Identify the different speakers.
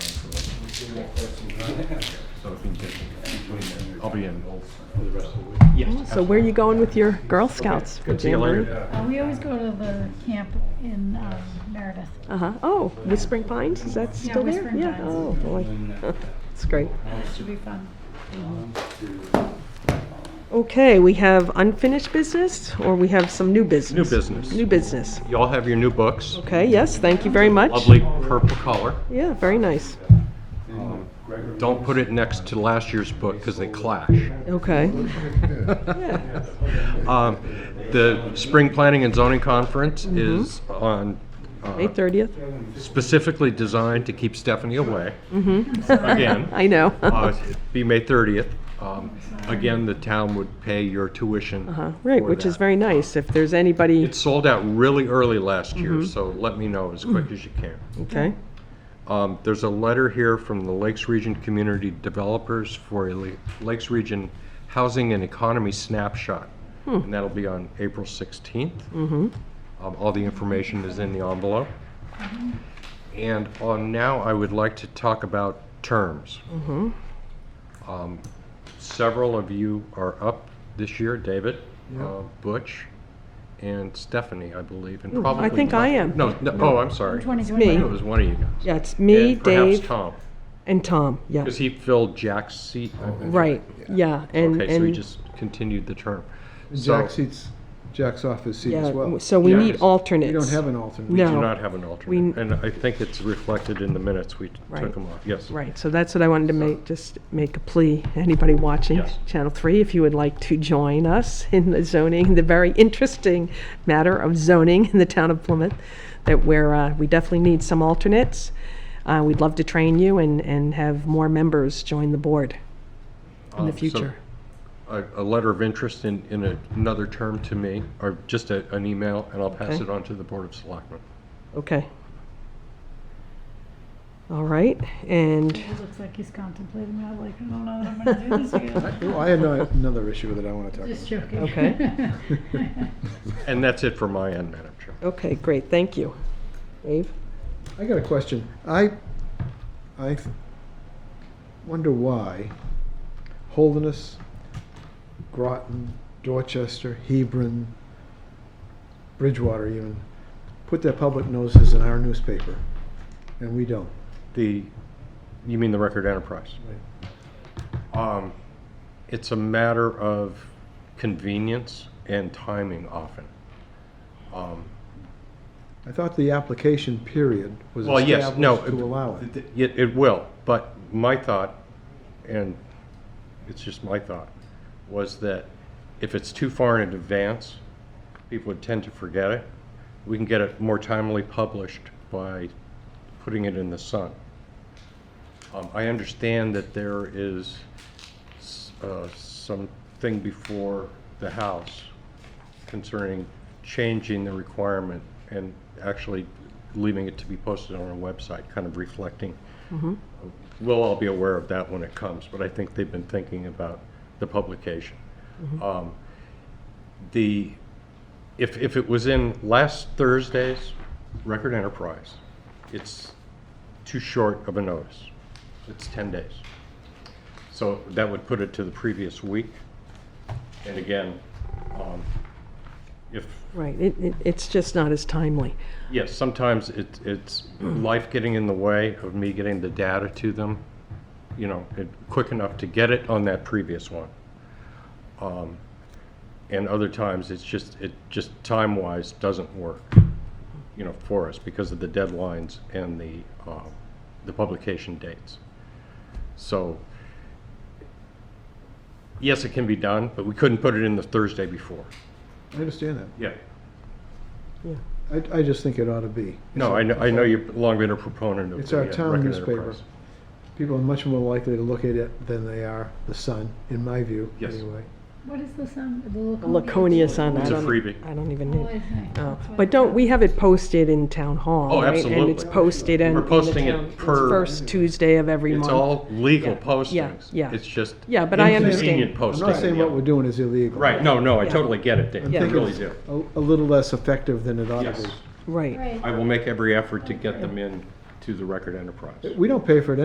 Speaker 1: So if we can get between, I'll be in.
Speaker 2: So where are you going with your Girl Scouts?
Speaker 3: Good to see you
Speaker 2: Jamboree?
Speaker 3: later.
Speaker 4: Uh, We always go to the camp in um, Meredith.
Speaker 2: Uh-huh. Oh, Whispering Pines, is that still there?
Speaker 4: Whispering Pines.
Speaker 2: Oh, boy. It's great.
Speaker 4: It should be fun.
Speaker 2: Okay, we have unfinished business, or we have some new
Speaker 3: New
Speaker 2: business?
Speaker 3: business.
Speaker 2: New business.
Speaker 3: You all have your new books.
Speaker 2: Okay, yes, thank you very much.
Speaker 3: Lovely purple color.
Speaker 2: Yeah, very nice.
Speaker 3: Don't put it next to last year's book because they clash.
Speaker 2: Okay. Yeah.
Speaker 3: Um, The Spring Planning and Zoning Conference is on, uh,
Speaker 2: May 30th?
Speaker 3: specifically designed to keep Stephanie away. Mm-hmm. Again.
Speaker 2: I know. Uh-huh.
Speaker 3: Uh, it'd Be May 30th. Um, Again, the town would pay your tuition.
Speaker 2: Uh, Right,
Speaker 3: for
Speaker 2: which is
Speaker 3: that.
Speaker 2: very nice. If there's anybody,
Speaker 3: It sold out really early last
Speaker 2: Mm-hmm.
Speaker 3: year, so let me know as quick as you can.
Speaker 2: okay,
Speaker 3: Um, There's a letter here from the Lakes Region Community Developers for a La- Lakes Region Housing and Economy Snapshot.
Speaker 2: Hmm.
Speaker 3: And that'll be on April 16th.
Speaker 2: Mm-hmm.
Speaker 3: Um, All the information is in the envelope. And on now, I would like to talk about terms.
Speaker 2: Mm-hmm.
Speaker 3: Um, Several of you are up this year, David, uh, Butch, and Stephanie, I believe, and probably.
Speaker 2: think I am.
Speaker 3: No, no, oh, I'm sorry. I knew it was one of you guys.
Speaker 2: yeah, it's me,
Speaker 3: And perhaps
Speaker 2: Dave,
Speaker 3: Tom,
Speaker 2: and Tom, yeah,
Speaker 3: because he filled Jack's seat. I believe.
Speaker 2: right, yeah, and,
Speaker 3: Okay, so he
Speaker 2: and,
Speaker 3: just continued the term. So,
Speaker 5: Jack seats, Jack's office seat as
Speaker 2: yeah,
Speaker 5: well.
Speaker 2: so we
Speaker 3: Yeah,
Speaker 2: need
Speaker 3: because we
Speaker 5: We
Speaker 2: alternates.
Speaker 5: don't have an alternate.
Speaker 2: No.
Speaker 3: do not have an alternate,
Speaker 2: Oh. We-
Speaker 3: and I think it's reflected in the minutes we
Speaker 2: Right.
Speaker 3: took him off, yes.
Speaker 2: Right, so that's what I wanted to make, just make a plea, anybody watching
Speaker 3: Yes.
Speaker 2: Channel 3, if you would like to join us in the zoning, the very interesting matter of zoning in the town of Plymouth, that we're, uh, we definitely need some alternates. Uh, We'd love to train you and, and have more members join the board in
Speaker 3: Um,
Speaker 2: the
Speaker 3: so-
Speaker 2: future.
Speaker 3: A, a letter of interest in, in another term to me, or just a, an email, and I'll pass
Speaker 2: Okay.
Speaker 3: it on to the Board of Selectmen.
Speaker 2: Okay. All right, and,
Speaker 4: He looks like he's contemplating that, like, I don't know what I'm gonna do this year.
Speaker 5: Oh, I had no- another issue that I want to talk
Speaker 4: Just
Speaker 5: about.
Speaker 4: joking.
Speaker 2: Okay.
Speaker 3: And that's it for my end, Madam Chair.
Speaker 2: okay, great, thank you. Dave?
Speaker 5: I got a question. I, I th- wonder why Holderness, Groton, Dorchester, Hebron, Bridgewater even, put their public notices in our newspaper, and we don't.
Speaker 3: The, you mean the Record Enterprise? Um, It's a matter of convenience and timing often. Um,
Speaker 5: I thought the application period was
Speaker 3: Well, yes, no.
Speaker 5: established to allow it.
Speaker 3: th- It, it will, but my thought, and it's just my thought, was that if it's too far in advance, people would tend to forget it. We can get it more timely published by putting it in the sun. Um, I understand that there is, s- uh, something before the House concerning changing the requirement and actually leaving it to be posted on our website, kind of reflecting. We'll all be aware of that when it comes, but I think they've been thinking about the publication. Um, The, if, if it was in last Thursday's Record Enterprise, it's too short of a notice. It's 10 days. So that would put it to the previous week. And again, um, if,
Speaker 2: Right, it, it- it's just not as timely.
Speaker 3: yes, sometimes it- it's life getting in the way of me getting the data to them, you know, it- quick enough to get it on that previous one. Um, And other times, it's just, it just time-wise doesn't work, you know, for us because of the deadlines and the, uh, the publication dates. So, yes, it can be done, but we couldn't put it in the Thursday before.
Speaker 5: I understand that.
Speaker 3: Yeah.
Speaker 5: I, I just think it ought to be.
Speaker 3: No, I know, I know you've long been a proponent of.
Speaker 5: It's
Speaker 3: the,
Speaker 5: our
Speaker 3: uh,
Speaker 5: town
Speaker 3: Record
Speaker 5: newspaper.
Speaker 3: Enterprise.
Speaker 5: People are much more likely to look at it than they are the sun, in my view,
Speaker 3: Yes.
Speaker 5: anyway.
Speaker 4: What is the sound? The Laconia?
Speaker 2: Laconia on that.
Speaker 3: It's a freebie.
Speaker 2: I don't even
Speaker 4: What
Speaker 2: need,
Speaker 4: do you think?
Speaker 2: oh,
Speaker 4: That's what
Speaker 2: but don't, we have it posted in town hall,
Speaker 3: Oh,
Speaker 2: right? And it's
Speaker 3: absolutely.
Speaker 2: posted in.
Speaker 3: We're
Speaker 2: in the
Speaker 3: posting it
Speaker 2: town- it's
Speaker 3: per-
Speaker 2: First Tuesday of every month.
Speaker 3: It's all legal
Speaker 2: yeah,
Speaker 3: postings.
Speaker 2: yeah.
Speaker 3: It's just.
Speaker 2: Yeah, but I understand.
Speaker 3: Inconvenient
Speaker 5: I'm
Speaker 3: posting.
Speaker 5: not saying what we're doing is illegal.
Speaker 3: Right, no, no, I
Speaker 2: Yeah.
Speaker 3: totally get it,
Speaker 5: I'm
Speaker 3: Dave, I
Speaker 5: thinking
Speaker 3: really
Speaker 5: it's
Speaker 3: do.
Speaker 5: A, a little less effective than it ought
Speaker 3: Yes.
Speaker 5: to
Speaker 2: Right.
Speaker 4: Right.
Speaker 3: I will make every effort to get them in to the Record Enterprise.
Speaker 5: be. We don't pay for it